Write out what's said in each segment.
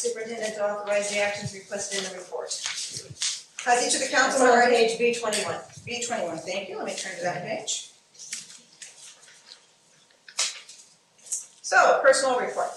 Superintendent to authorize the actions requested in the report. Has each of the That's council on member page B twenty-one. B twenty-one, thank you, let me turn to that page. So, personal report.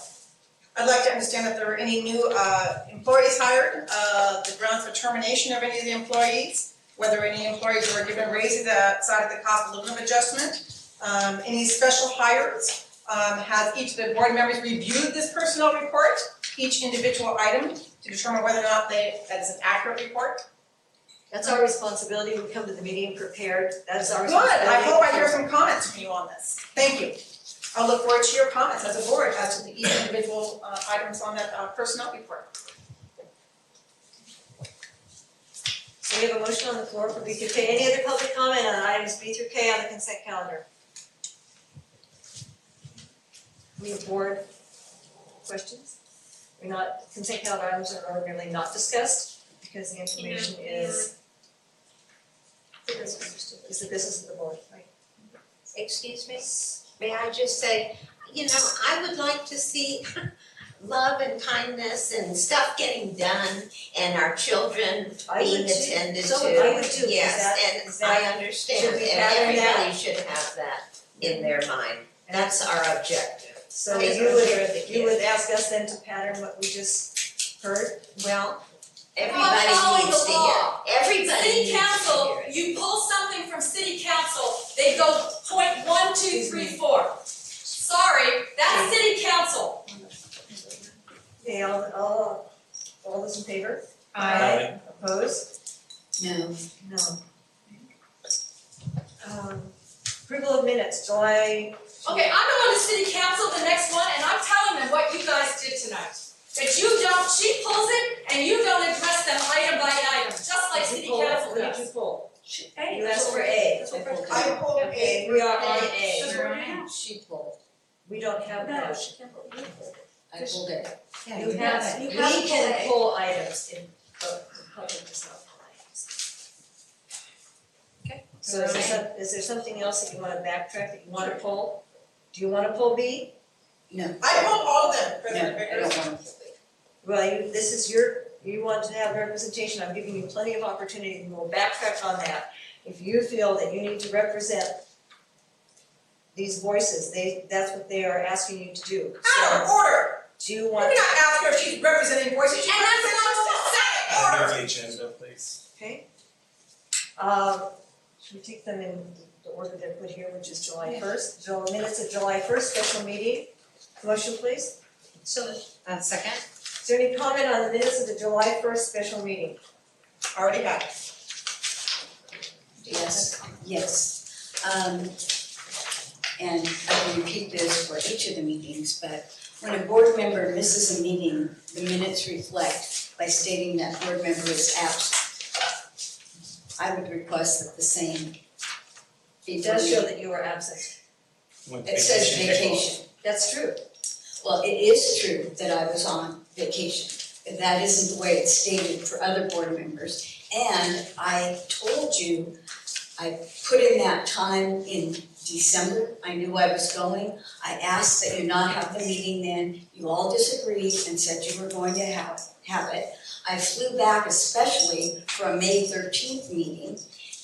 I'd like to understand if there were any new uh employees hired, uh the grounds for termination of any of the employees, whether any employees were given raises outside of the cost of living adjustment, um any special hires. Um has each of the board members reviewed this personnel report, each individual item, to determine whether or not they, that is an accurate report? That's our responsibility, we come to the meeting prepared, that's our Good, responsibility. I hope I hear some comments from you on this, thank you. I'll look forward to your comments as a board as to the each individual uh items on that uh personnel report. So we have a motion on the floor for B through K, any other public comment on items B through K on the consent calendar? We have board questions? We're not, consent calendar items are ordinarily not discussed, because the information is. Is the business of the board, right? Excuse me, may I just say, you know, I would like to see love and kindness and stuff getting done and our children I would being too. attended to. So would I would too. Is that- is Yes, and that- I understand, should we and gather that? everybody should have that in their mind, And that's our objective. So Is you would, care of the you kids. would ask us then to pattern what we just heard? Well, following everybody the needs to law. hear, everybody needs City to council, hear it. you pull something from city council, they go point one, two, three, four. Sorry, that's city council. Okay, all, all, all those in favor? Aye. Opposed? No. No. Um, approval of minutes, July. Okay, I'm going to city council the next one, and I'm telling them what you guys did tonight. That you don't, she pulls it, and you don't address them item by item, just like city Pull. council What did does. you pull? Hey, You asked for A. that's what we're- I pulled I hold A. a, We are on A. That's what we're doing. She pulled, We don't have that. I pulled it. You have, you have We to can pull pull items in, but the public does not pull items. Okay. So is there some, is there something else that you wanna backtrack, that you wanna pull? Do you wanna pull B? I hold all of them, President I Vickers. don't want to. Well, you, this is your, you want to have representation, I'm giving you plenty of opportunity, and we'll backtrack on that. If you feel that you need to represent these voices, they, that's what they are asking you to do. Out So, of order, do you you want, cannot ask her if she's representing voices, she's And that's representing herself, out of order. Amend the agenda, please. okay? Um, should we take them in the order they're put here, which is July first, July, minutes of July first, special meeting? Motion please, So, Uh, second? is there any comment on the minutes of the July first special meeting? Already got it. Yes, yes. Um, and I will repeat this for each of the meetings, but when a board member misses a meeting, the minutes reflect by stating that board member is absent. I would request that the same be It does show done. that you were absent. With It says vacation day. vacation. That's true. Well, it is true that I was on vacation, but that isn't the way it's stated for other board members. And I told you put in that time in December, I knew I was going. I asked that you not have the meeting then, you all disagreed and said you were going to have, have it. I flew back especially for a May thirteenth meeting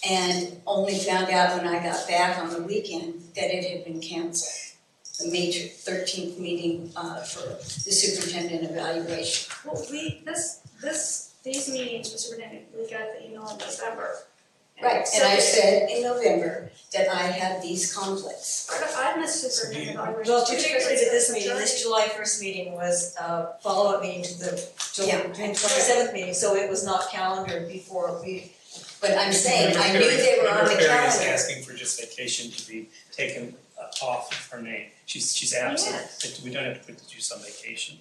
and only found out when I got back on the weekend that it had been canceled. The May thirteenth meeting, uh, for the superintendent evaluation. Well, we, this, this, these meetings, Mr. Bennett, we got the email in December. And I So, said in November that I had these conflicts. I missed superintendent evaluation. Well, particularly to this meeting, this July first meeting was a follow-up meeting to the July, Yeah. June twenty-seventh meeting, so it was not calendared before we. But I'm saying, I knew Member Perry- they were on the Member Perry is calendar. asking for just vacation to be taken uh, off of her name. She's, she's absent. Oh, It- We don't have to put the juice on vacation.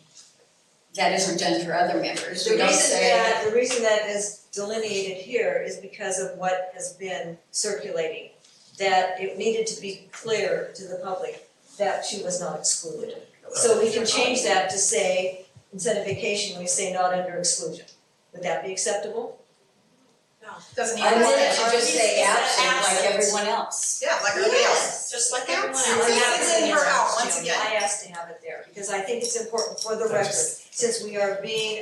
That isn't done for other members, we The don't reason say, that, the reason that is delineated here is because of what has been circulating. That it needed to be clear to the public that she was not excluded. So we can change that to say, instead of vacation, we say not under exclusion. Would that be acceptable? Doesn't I even wanted say to just say absent like everyone else. Yeah, like everybody else. just like everyone else. This is in her out, once again. I asked to have it there because because I think it's important for the record, That's since we are being